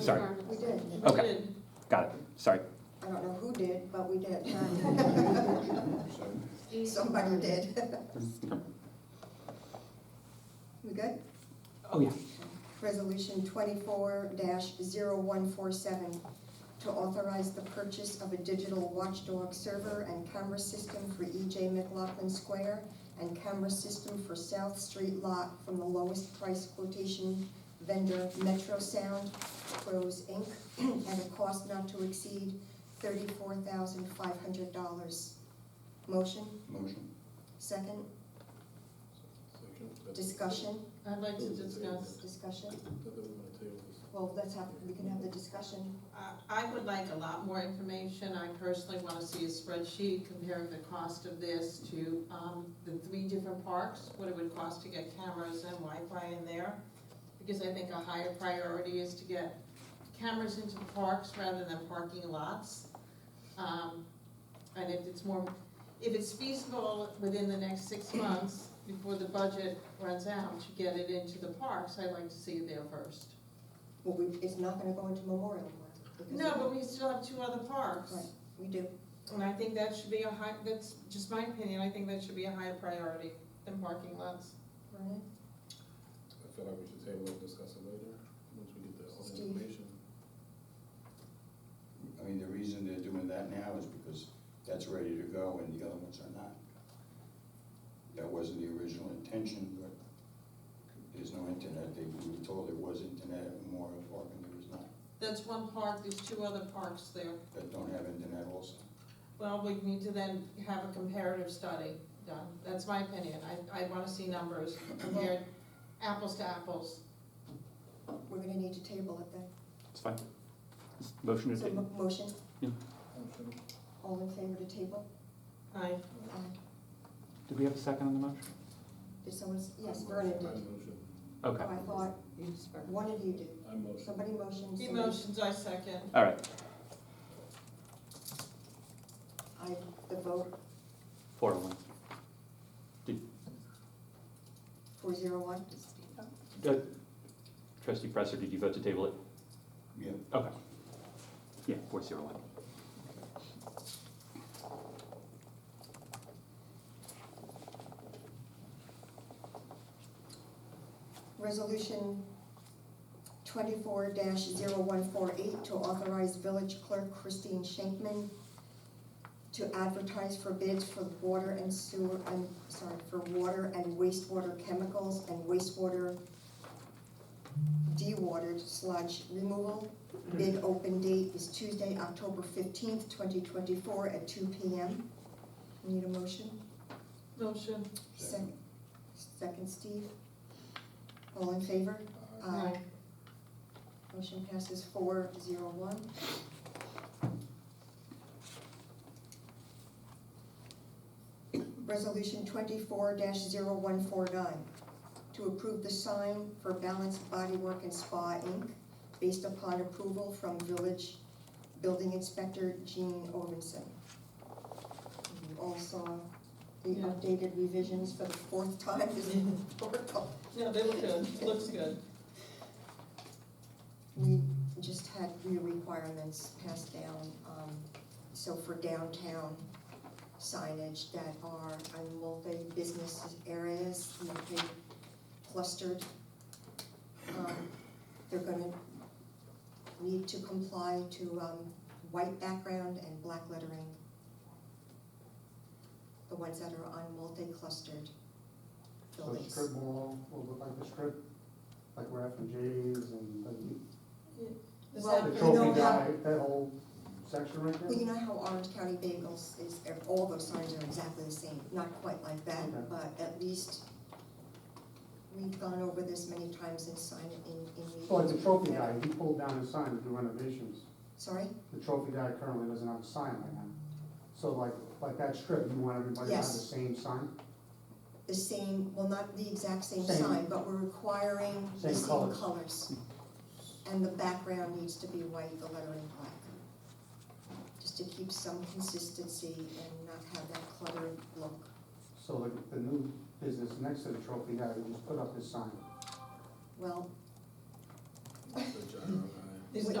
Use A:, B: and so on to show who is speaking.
A: Sorry.
B: We did.
A: Okay. Got it, sorry.
B: I don't know who did, but we did.
A: Mm-hmm.
B: Somebody did. We good?
A: Oh, yeah.
B: Resolution twenty-four 147 to authorize the purchase of a digital watchdog server and camera system for EJ McLaughlin Square and camera system for South Street Lot from the lowest price quotation vendor Metro Sound Pros Inc. at a cost not to exceed thirty-four thousand five hundred dollars. Motion,
C: Motion.
B: second, discussion,
D: I'd like to discuss,
B: discussion. Well, let's have, we can have the discussion.
D: I- Uh, I would like a lot more information. I personally want to see a spreadsheet comparing the cost of this to um, the three different parks, what it would cost to get cameras and Wi-Fi in there. Because I think a higher priority is to get cameras into parks rather than parking lots. Um, And if it's more, if it's feasible within the next six months, before the budget runs out, to get it into the parks, I'd like to see it there first.
B: Well, we, it's not gonna go into Memorial Park. because
D: No, but we still have two other parks.
B: Right, we do.
D: And I think that should be a high, that's just my opinion, I think that should be a higher priority than parking lots.
B: Brian?
C: I feel like we should table it, discuss it later, once we get the all the
B: Steve.
C: information.
E: I mean, the reason they're doing that now is because that's ready to go and the other ones are not. That wasn't the original intention, but there's no internet. They, we were told there was internet at Memorial Park and there was not.
D: That's one park, there's two other parks there.
E: That don't have internet also.
D: Well, we need to then have a comparative study done, that's my opinion, I, I wanna see numbers compared apples to apples.
B: We're gonna need to table it then.
A: It's fine. It's Motion to
B: So,
A: table.
B: mo- motion,
C: Motion.
B: all in favor to table?
D: I,
B: Aye.
A: Did we have a second on the motion?
B: Did someone, s- yes, Vernon
C: I
B: did.
C: motion.
A: Okay,
B: Oh, I thought one of you did.
C: I motion.
B: Somebody motioned.
D: he
B: somebody-
D: motions, I second.
A: all right,
B: I, the vote,
A: four oh one.
B: four zero one.
A: Uh, Trustee Presser, did you vote to table it?
E: Yeah,
A: Okay. Yeah, four zero one.
B: Resolution twenty-four 148 to authorize village clerk Christine Schenkman to advertise for bids for water and sewer, and, sorry, for water and wastewater chemicals and wastewater dewatered sludge removal. Bid open date is Tuesday, October fifteenth, twenty twenty-four at two P M. Need a motion?
D: Motion,
B: Second. Second, Steve. All in favor?
D: I,
B: Motion passes four zero one. Resolution twenty-four 149 to approve the sign for Balanced Bodywork and Spa Inc. based upon approval from Village Building Inspector Gene Ovinson. You all saw the
D: Yeah.
B: updated revisions for the fourth time, this is horrible.
D: no, they look good, looks good.
B: We just had new requirements passed down, um, so for downtown signage that are on multi-business areas, multi-clustered. um, They're gonna need to comply to, um, white background and black lettering. The ones that are on multi-clustered
F: So the
B: buildings.
F: strip mall will look like the strip, like where F and J's and
D: Is
B: Well,
F: the,
D: that-
F: the
B: you know
F: trophy
B: how-
F: guy, that whole section right there?
B: Well, you know how Orange County Bagels is, all those signs are exactly the same, not quite like
F: Okay.
B: that, but at least we've gone over this many times and signed it in, in meetings.
F: So like the Oh, trophy guy, he pulled down his sign to do renovations.
B: Sorry?
F: The trophy guy currently doesn't have a sign right now. So like, like that strip, you want everybody to have the
B: Yes.
F: same sign?
B: The same, well, not the exact same
F: Same.
B: sign, but we're requiring the
F: Same
B: same
F: colors.
B: colors. And the background needs to be white, the lettering black. Just to keep some consistency and not have that cluttered look.
F: So like the new business next to the trophy guy, he just put up his sign.
B: Well,
C: Motion, John, aye.
D: Is-